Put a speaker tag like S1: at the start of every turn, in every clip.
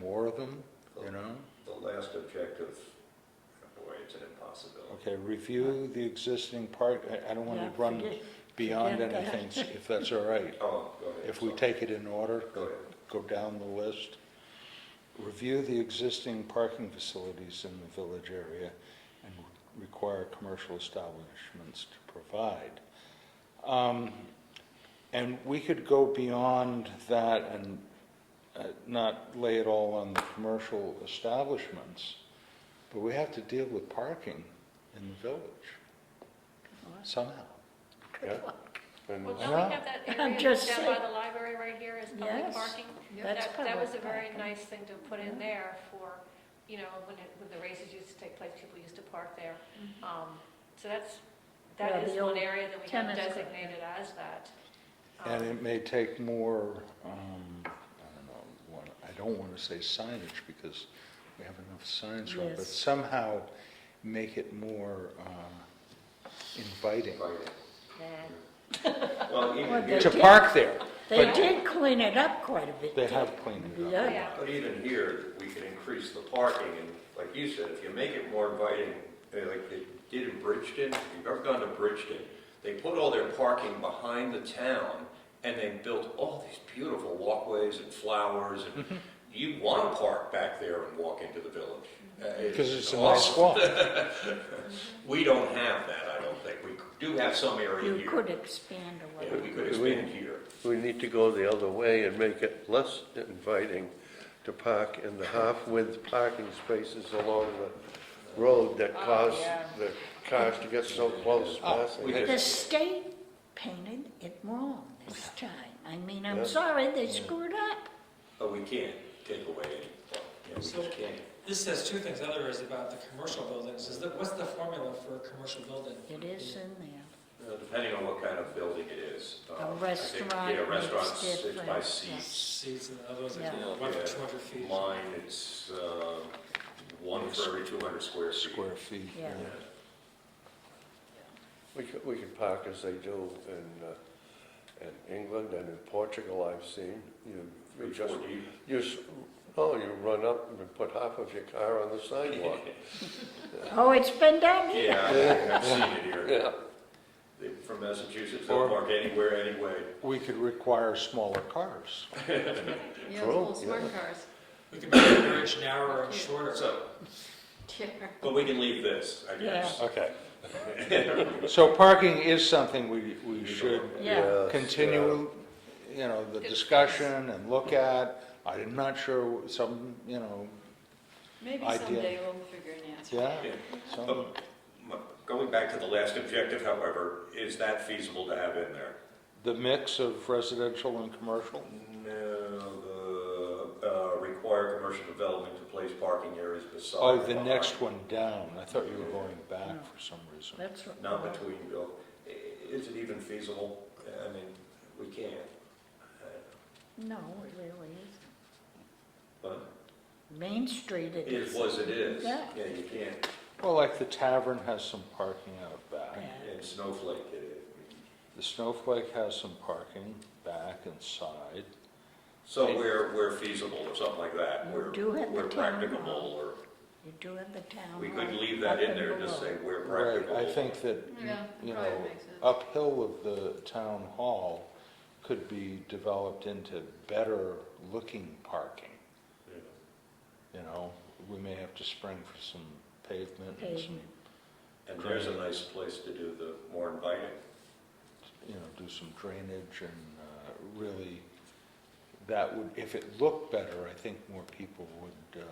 S1: more of them, you know?
S2: The last objective, boy, it's an impossibility.
S1: Okay, review the existing park, I, I don't want
S3: Yeah,
S1: to run
S3: forget-
S1: beyond
S3: forget that.
S1: anything, if that's all right.
S2: Oh, go ahead.
S1: If we
S2: sorry.
S1: take it in order,
S2: Go ahead.
S1: go down the list. Review the existing parking facilities in the village area and require commercial establishments to provide. Um, And we could go beyond that and uh, not lay it all on the commercial establishments, but we have to deal with parking in the village somehow.
S4: Yeah. And
S5: Well,
S4: it's-
S5: don't we have that
S3: I'm
S5: area
S3: just
S5: down by
S3: saying.
S5: the library right here as public
S3: Yes,
S5: parking?
S3: that's
S5: That- That was a
S3: public
S5: very
S3: parking.
S5: nice thing to put in there for, you know, when, it- when the races used to take place, people used to park there. Um, So that's,
S3: Yeah,
S5: that is
S3: the
S5: one
S3: old
S5: area that we have
S3: tennis court.
S5: designated as that. Um,
S1: And it may take more, um, I don't know, one, I don't want to say signage because we have enough signs around, but
S3: Yes.
S1: somehow make it more, uh, inviting
S2: Inviting.
S3: Nah.
S2: Well,
S3: Well,
S2: even
S3: they-
S2: here,
S1: to park there.
S3: They
S1: But
S3: did clean it up quite a bit.
S1: They have cleaned it up.
S3: Yeah,
S5: Yeah,
S2: but even here, we can increase the parking, and like you said, if you make it more inviting, eh, like they did in Bridgeton, if you've ever gone to Bridgeton, they put all their parking behind the town, and they built all these beautiful walkways and flowers, and
S1: Mm-hmm.
S2: you want to park back there and walk into the village. Eh,
S1: Because it's a nice walk.
S2: We don't have that, I don't think. We do have some area
S3: you
S2: here.
S3: could expand a
S2: Yeah,
S3: little.
S2: we could expand here.
S4: we need to go the other way and make it less inviting to park in the half-width parking spaces along the road that cause
S3: yeah.
S4: the cars to get so close
S2: we
S4: passing.
S2: did.
S3: The state painted it wrong this time. I mean,
S4: Yeah.
S3: I'm sorry, they screwed up.
S2: But we can't take away any, you know, we just can't.
S6: This says two things, other is about the commercial buildings, is that, what's the formula for a commercial building?
S3: It is in there.
S2: Uh, Depending on what kind of building it is. um,
S3: A
S2: I think,
S3: restaurant
S2: Yeah,
S3: is
S2: restaurants, it's by
S3: different,
S2: seats.
S6: Seats and others, like,
S3: Yeah.
S6: you know, one for two hundred feet.
S2: Mine, it's uh, one for every 200 square feet.
S1: Square feet.
S3: Yeah.
S2: Yeah.
S4: We could, we could park as they do in, uh, in England and in Portugal, I've seen. You, you
S2: Three, four
S4: just,
S2: deep.
S4: you, s- oh, you run up and put half of your car on the sidewalk.
S3: Oh, it's been down here.
S2: Yeah, I think I've seen it here.
S4: Yeah.
S2: They- From Massachusetts,
S1: Or-
S2: they'll park anywhere, anyway.
S1: We could require smaller cars.
S7: Yeah,
S4: True,
S7: those little
S4: yeah.
S7: smart cars.
S6: We can make the bridge narrower and shorter.
S2: So,
S7: Yeah.
S2: but we can leave this, I guess.
S1: Okay. So parking is something we, we should
S3: Yeah.
S4: Yes,
S1: continue, you know, the discussion and look at. I'm not sure, some, you know,
S7: Maybe
S1: Idea.
S7: someday we'll figure an answer.
S1: yeah,
S2: Yeah.
S1: some.
S2: But m- Uh, Going back to the last objective, however, is that feasible to have in there?
S1: The mix of residential and commercial?
S2: No, the, uh, require commercial development to place parking areas beside.
S1: Oh,
S2: or
S1: the
S2: behind.
S1: next one down. I thought you were going back for some reason.
S3: That's
S2: Not
S3: what,
S2: between, buil- i- is it even feasible? I mean, we can't.
S3: no, it really isn't.
S2: But
S3: Main Street it
S2: it is
S3: is.
S2: was it is.
S3: Yeah.
S2: Yeah, you can't,
S1: Well, like the tavern has some parking out back.
S3: Yeah.
S2: and Snowflake it is.
S1: The Snowflake has some parking back and side.
S2: So we're, we're feasible or something like that.
S3: You
S2: We're,
S3: do have the
S2: we're
S3: town
S2: practicable
S3: hall.
S2: or,
S3: You do have the town.
S2: we could
S3: hall
S2: leave that
S3: up
S2: in
S3: and
S2: there and just
S3: below.
S2: say we're
S1: Right,
S2: practicable.
S1: I think that,
S7: Yeah,
S1: you
S7: probably
S1: know,
S7: makes sense.
S1: uphill of the town hall could be developed into better looking parking.
S2: Yeah.
S1: You know, we may have to spring for some pavement and some,
S3: Pavement.
S2: And there's a nice place to do the more inviting.
S1: you know, do some drainage and uh, really, that would, if it looked better, I think more people would uh,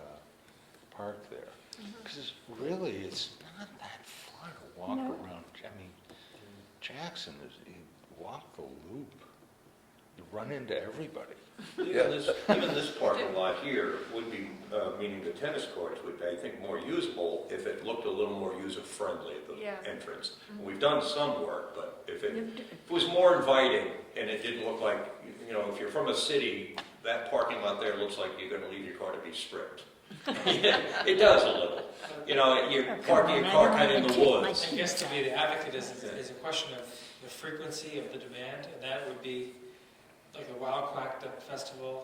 S1: park there. Because really, it's not that far to walk
S3: No.
S1: around, I mean, Jackson is, you walk the loop, you run into everybody.
S2: Even this, even this parking lot here would be, uh, meaning the tennis courts would be, I think, more usable if it looked a little more user-friendly at
S5: Yeah.
S2: the entrance. We've done some work, but if it,
S3: You've d-
S2: if it was more inviting and it didn't look like, you know, if you're from a city, that parking lot there looks like you're gonna leave your car to be stripped. It does a little. You know, you're
S3: Oh, come
S2: parking
S3: on,
S2: your
S3: I
S2: car
S3: don't
S2: kind of in
S3: wanna
S2: the
S3: take my
S2: woods.
S6: I guess to be the advocate is, is a question of the frequency of the demand, and that would be like a Wild Quack Duck Festival,